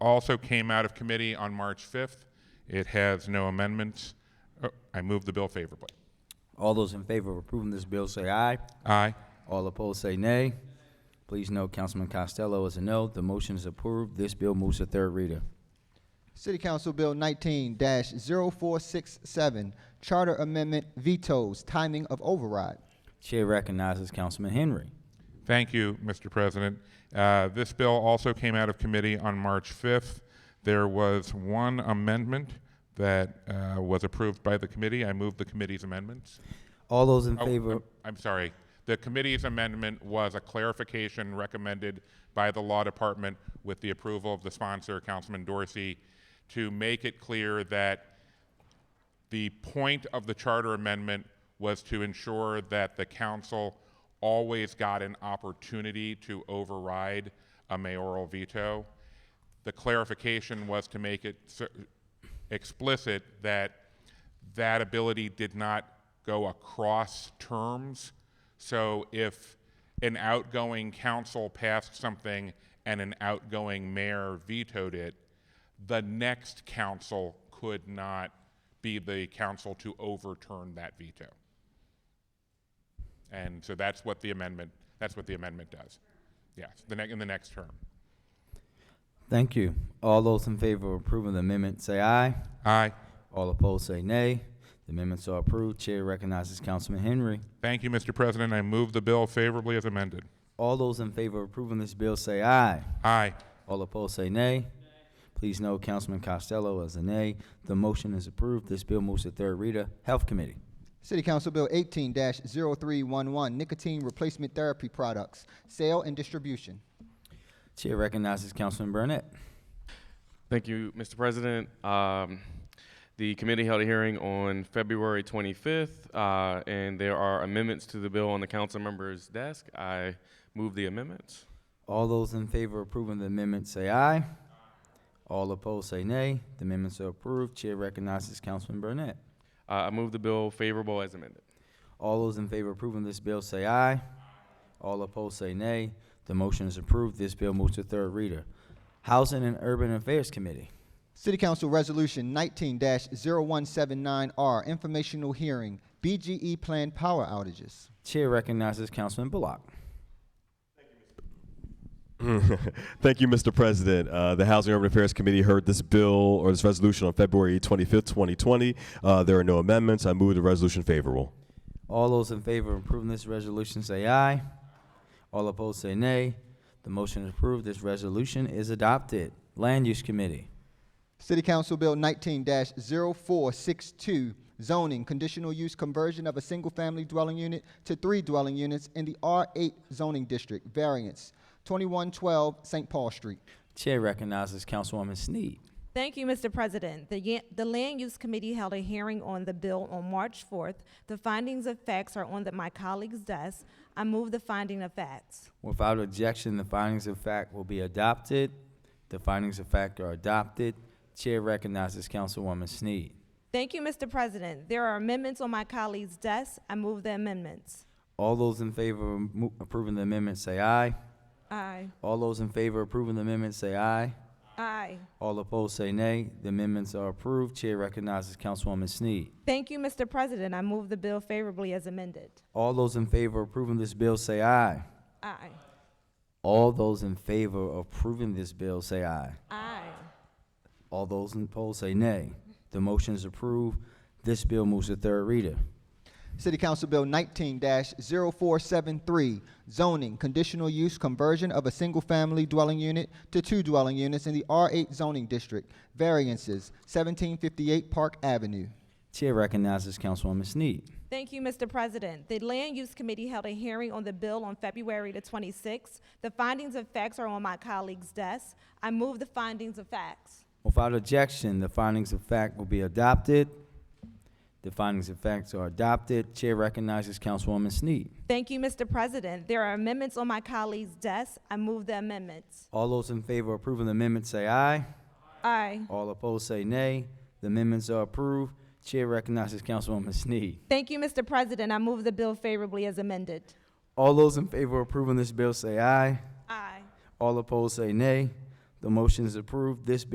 also came out of committee on March 5th. It has no amendments. Oh, I move the bill favorably. All those in favor of approving this bill say aye. Aye. All opposed say nay. Please note Councilman Costello is a no. The motion is approved. This bill moves to third reader. City Council Bill nineteen 467 Charter Amendment vetoes timing of override. Chair recognizes Councilman Henry. Thank you, Mr. President. Uh, This bill also came out of committee on March 5th. There was one amendment that uh, was approved by the committee. I move the committee's amendments. All those in Oh, favor, I'm- I'm sorry. The committee's amendment was a clarification recommended by the law department with the approval of the sponsor, Councilman Dorsey, to make it clear that the point of the charter amendment was to ensure that the council always got an opportunity to override a mayoral veto. The clarification was to make it cer- explicit that that ability did not go across terms. So if an outgoing council passed something and an outgoing mayor vetoed it, the next council could not be the council to overturn that veto. And so that's what the amendment, that's what the amendment does. Yes, the ne- in the next term. thank you. All those in favor of approving the amendment say aye. Aye. All opposed say nay. The amendments are approved. Chair recognizes Councilman Henry. Thank you, Mr. President. I move the bill favorably as amended. All those in favor of approving this bill say aye. Aye. All opposed say nay. Please note Councilman Costello is a nay. The motion is approved. This bill moves to third reader. Health Committee. City Council Bill eighteen 311 Nicotine Replacement Therapy Products, Sale and Distribution. Chair recognizes Councilman Burnett. Thank you, Mr. President. Um, the committee held a hearing on February 25th, uh, and there are amendments to the bill on the council member's desk. I move the amendments. All those in favor of approving the amendment say aye. All opposed say nay. The amendments are approved. Chair recognizes Councilman Burnett. Uh, I move the bill favorable as amended. All those in favor of approving this bill say aye. All opposed say nay. The motion is approved. This bill moves to third reader. Housing and Urban Affairs Committee. City Council Resolution nineteen 179 R, Informational Hearing, BGE Planned Power Outages. Chair recognizes Councilman Bullock. Thank you, Mr. President. Uh, the Housing and Urban Affairs Committee heard this bill or this resolution on February 25th, 2020. Uh, there are no amendments. I move the resolution favorable. All those in favor of approving this resolution say aye. All opposed say nay. The motion is approved. This resolution is adopted. Land Use Committee. City Council Bill nineteen 462 zoning, conditional use conversion of a single-family dwelling unit to three dwelling units in the R eight zoning district, variance, twenty-one twelve St. Paul Street. Chair recognizes Councilwoman Snead. Thank you, Mr. President. The, Yan- the Land Use Committee held a hearing on the bill on March 4th. The findings of facts are on the- my colleague's desk. I move the finding of facts. Without objection, the findings of fact will be adopted. The findings of fact are adopted. Chair recognizes Councilwoman Snead. Thank you, Mr. President. There are amendments on my colleague's desk. I move the amendments. All those in favor of mo- approving the amendment say aye. Aye. All those in favor of approving the amendment say aye. Aye. All opposed say nay. The amendments are approved. Chair recognizes Councilwoman Snead. Thank you, Mr. President. I move the bill favorably as amended. All those in favor of approving this bill say aye. Aye. All those in favor of approving this bill say aye. Aye. All those in opposed say nay. The motion is approved. This bill moves to third reader. City Council Bill nineteen 473 zoning, conditional use conversion of a single-family dwelling unit to two dwelling units in the R eight zoning district, variances, seventeen fifty-eight Park Avenue. Chair recognizes Councilwoman Snead. Thank you, Mr. President. The Land Use Committee held a hearing on the bill on February the 26th. The findings of facts are on my colleague's desk. I move the findings of facts. Without objection, the findings of fact will be adopted. The findings of facts are adopted. Chair recognizes Councilwoman Snead. Thank you, Mr. President. There are amendments on my colleague's desk. I move the amendments. All those in favor of approving the amendment say aye. Aye. All opposed say nay. The amendments are approved. Chair recognizes Councilwoman Snead. Thank you, Mr. President. I move the bill favorably as amended. All those in favor of approving this bill say aye. Aye. All opposed say nay. The motion is approved. This bill